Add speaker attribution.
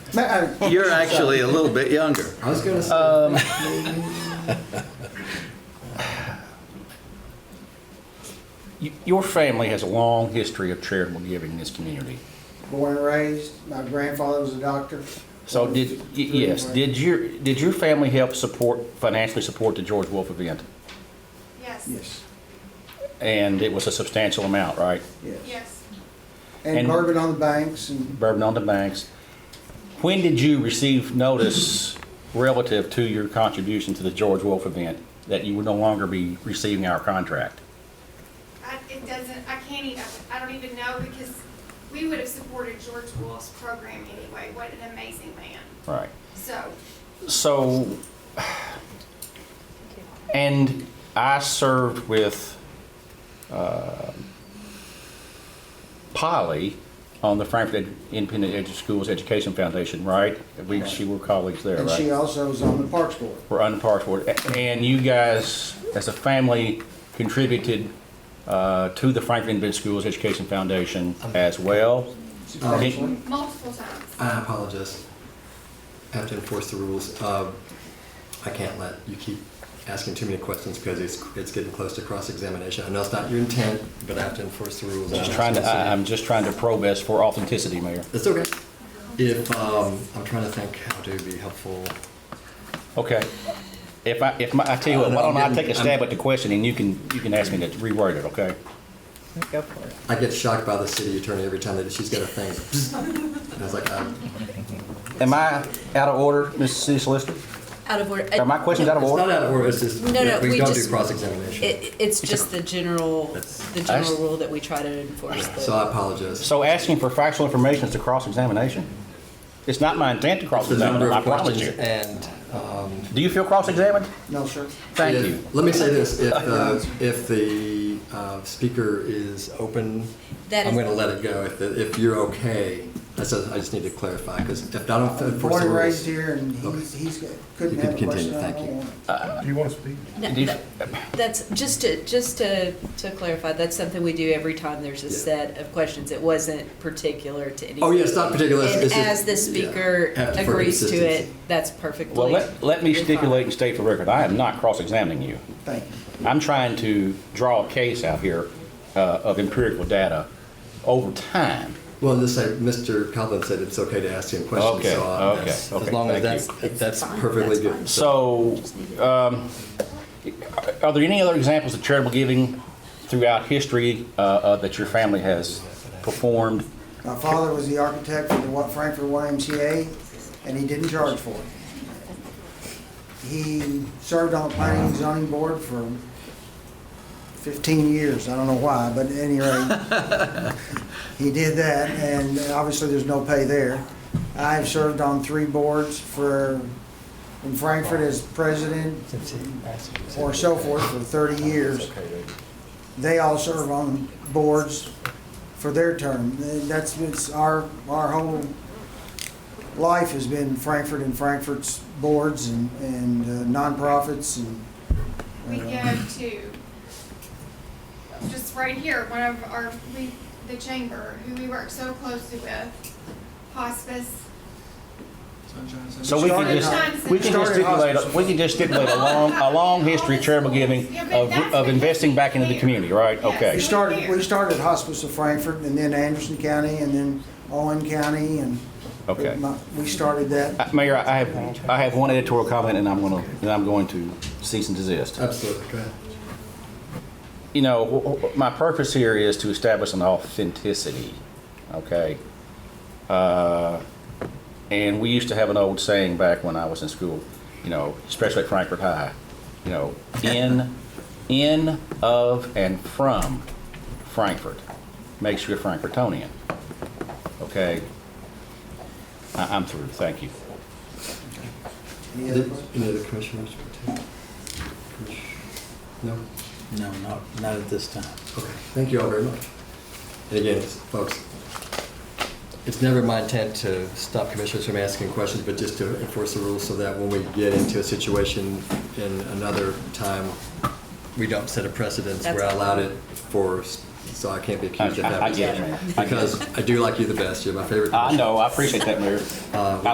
Speaker 1: You're actually a little bit younger.
Speaker 2: I was gonna say.
Speaker 3: Y- Your family has a long history of charitable giving in this community.
Speaker 4: born and raised. My grandfather was a doctor.
Speaker 3: So did, y- yes, did your, did your family help support, financially support the George Wolf event?
Speaker 5: Yes.
Speaker 4: Yes,
Speaker 3: And it was a substantial amount, right?
Speaker 4: yes.
Speaker 5: Yes.
Speaker 4: And
Speaker 3: And-
Speaker 4: bourbon on the banks and
Speaker 3: Bourbon on the banks. When did you receive notice relative to your contribution to the George Wolf event that you would no longer be receiving our contract?
Speaker 5: I, it doesn't, I can't even, I don't even know because we would have supported George Wolf's program anyway. What an amazing man.
Speaker 3: Right.
Speaker 5: So,
Speaker 3: So, and I served with uh, Polly on the Frankfurt Ed- Independent Edu- Schools Education Foundation, right? We, she were colleagues there,
Speaker 4: and she uh,
Speaker 3: right?
Speaker 4: also was on the parks board.
Speaker 3: We're on the Parks Board. A- And you guys, as a family, contributed uh, to the Frankfurt Independent Schools Education Foundation as well? Uh-huh.
Speaker 4: substantially.
Speaker 5: multiple times.
Speaker 2: I apologize. I have to enforce the rules. Uh, I can't let you keep asking too many questions because it's, it's getting close to cross-examination. I know it's not your intent, but I have to enforce the rules.
Speaker 3: Just trying to, I- I'm just trying to probe us for authenticity, Mayor.
Speaker 2: It's okay. If, um, I'm trying to think how to be helpful.
Speaker 3: Okay. If I, if my, I tell you what, why don't I take a stab at the question and you can, you can ask me to reword it, okay?
Speaker 6: Go for it.
Speaker 2: I get shocked by the city attorney every time that she's got a thing. And I was like, uh,
Speaker 3: Am I out of order, Mrs. City Solicitor?
Speaker 7: Out of order.
Speaker 3: Are my questions out of
Speaker 2: it's not
Speaker 3: order?
Speaker 2: out of order, it's just,
Speaker 7: No, no,
Speaker 2: we
Speaker 7: we
Speaker 2: don't do
Speaker 7: just-
Speaker 2: cross-examination.
Speaker 7: It, it's just the general,
Speaker 2: That's-
Speaker 7: the general rule that we try to enforce. the-
Speaker 2: So I apologize.
Speaker 3: So asking for factual information is a cross-examination? It's not my intent to
Speaker 2: The number
Speaker 3: cross-examine, I
Speaker 2: of
Speaker 3: promise
Speaker 2: questions
Speaker 3: you.
Speaker 2: and, um,
Speaker 3: Do you feel cross-examined?
Speaker 4: No, sir.
Speaker 3: Thank
Speaker 2: If-
Speaker 3: you.
Speaker 2: Let me say this, if, uh, if the uh, speaker is open,
Speaker 7: That
Speaker 2: I'm
Speaker 7: is-
Speaker 2: going to let it go. If, the- if you're okay, I said, I just need to clarify, because if I don't enforce
Speaker 4: Uh, Born
Speaker 2: the
Speaker 4: and
Speaker 2: rules.
Speaker 4: raised here and he's,
Speaker 2: Okay.
Speaker 4: he's, got-
Speaker 2: You
Speaker 4: couldn't
Speaker 2: can
Speaker 4: have a
Speaker 2: continue,
Speaker 4: question I
Speaker 2: thank you.
Speaker 4: don't want.
Speaker 8: Do you want to speak?
Speaker 7: No,
Speaker 3: Do you-
Speaker 7: that- That's, just to, just to, to clarify, that's something we do every time there's a
Speaker 2: Yeah.
Speaker 7: set of questions. It wasn't particular to any.
Speaker 2: Oh, yeah, it's not particular. it's-
Speaker 7: And
Speaker 2: it's just-
Speaker 7: as the speaker
Speaker 2: yeah, have for
Speaker 7: agrees to it,
Speaker 2: consistency.
Speaker 7: that's perfectly.
Speaker 3: Well, let, let me
Speaker 7: you're fine.
Speaker 3: stipulate and state for record, I am not cross-examining you.
Speaker 4: Thank you.
Speaker 3: I'm trying to draw a case out here uh, of empirical data over time.
Speaker 2: Well, just say, Mr. Copeland said it's okay to ask him questions,
Speaker 3: Okay,
Speaker 2: so uh,
Speaker 3: okay,
Speaker 2: that's-
Speaker 3: okay,
Speaker 2: as long
Speaker 3: thank
Speaker 2: as
Speaker 7: you.
Speaker 2: that's,
Speaker 7: It's
Speaker 2: that's
Speaker 7: fine,
Speaker 2: perfectly
Speaker 7: that's
Speaker 2: good.
Speaker 7: fine.
Speaker 3: So, um, are there any other examples of charitable giving throughout history uh, uh, that your family has performed?
Speaker 4: My father was the architect for the Wa- Frankfurt YMCA, and he didn't charge for it. He served on the planning and zoning board for fifteen years, I don't know why, but at any rate, he did that, and obviously there's no pay there. I've served on three boards for, in Frankfurt as president or so forth for thirty years they all serve on boards for their term. That's, it's our, our whole life has been Frankfurt and Frankfurt's boards and, and uh, nonprofits and.
Speaker 5: We
Speaker 4: uh,
Speaker 5: go to, just right here, one of our, we, the chamber, who we work so closely with, hospice.
Speaker 3: So we can just, we can just stipulate, we can just stipulate a long, a long history of charitable giving of, of investing back into the community, right?
Speaker 4: We
Speaker 3: Okay.
Speaker 4: started, we started Hospice of Frankfurt and then Anderson County and then Owen County and.
Speaker 3: Okay.
Speaker 4: We started that.
Speaker 3: Uh, Mayor, I have, I have one editorial comment and I'm gonna, and I'm going to cease and desist.
Speaker 2: Absolutely, go ahead.
Speaker 3: you know, wh- wh- my purpose here is to establish an authenticity, okay? Uh, and we used to have an old saying back when I was in school, you know, especially at Frankfurt High, you know, in, in, of, and from Frankfurt makes you a Frankfurtonian, okay? I, I'm through, thank you.
Speaker 4: Any other
Speaker 2: Did-
Speaker 4: questions?
Speaker 2: Any other commissioners? No?
Speaker 6: No, not, not at this time.
Speaker 2: Okay, thank you all very much. And again, folks, it's never my intent to stop commissioners from asking questions, but just to enforce the rules so that when we get into a situation in another time, we don't set a precedence where I
Speaker 7: That's-
Speaker 2: allowed it for, so I can't be accused of
Speaker 3: I- I- I
Speaker 2: having.
Speaker 3: get it, man. I get it.
Speaker 2: Because I do like you the best, you're my favorite.
Speaker 3: I
Speaker 2: commissioner.
Speaker 3: know, I appreciate that, Mayor.
Speaker 2: Uh,